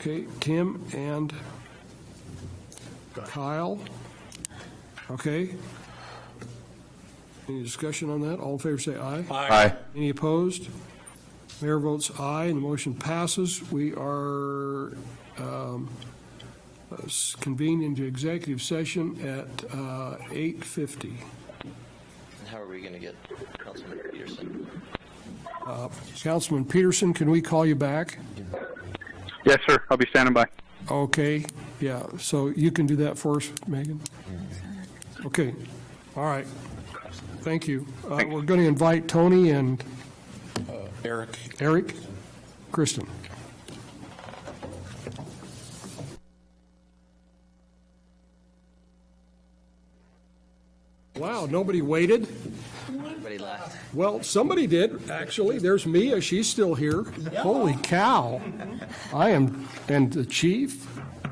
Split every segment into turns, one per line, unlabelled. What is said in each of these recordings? Okay, Tim and Kyle. Okay. Any discussion on that? All in favor, say aye.
Aye.
Any opposed? Mayor votes aye, and the motion passes. We are um, uh, convened into executive session at uh, 8:50.
And how are we going to get Councilman Peterson?
Councilman Peterson, can we call you back?
Yes, sir. I'll be standing by.
Okay, yeah, so you can do that for us, Megan? Okay, all right, thank you. Uh, We're going to invite Tony and
Eric?
Eric, Kristen. Wow, nobody waited?
Everybody left.
Well, somebody did, actually. There's Mia, she's still here. Holy cow. I am, and the chief,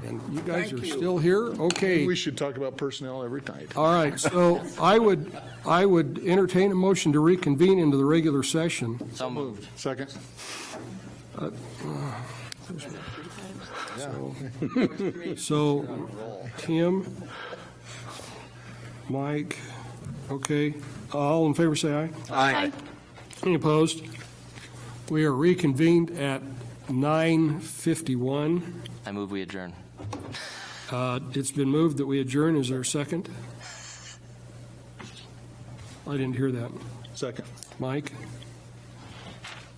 and you guys are still here? Okay.
We should talk about personnel every night.
All right, so I would, I would entertain a motion to reconvene into the regular session.
So moved.
Second?
So, Tim, Mike, okay, all in favor, say aye.
Aye.
Any opposed? We are reconvened at 9:51.
I move we adjourn.
Uh, It's been moved that we adjourn. Is there a second? I didn't hear that.
Second.
Mike?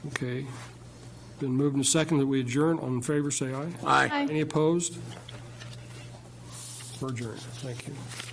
Okay. Been moved and seconded that we adjourn. All in favor, say aye.
Aye.
Any opposed? We're adjourned. Thank you.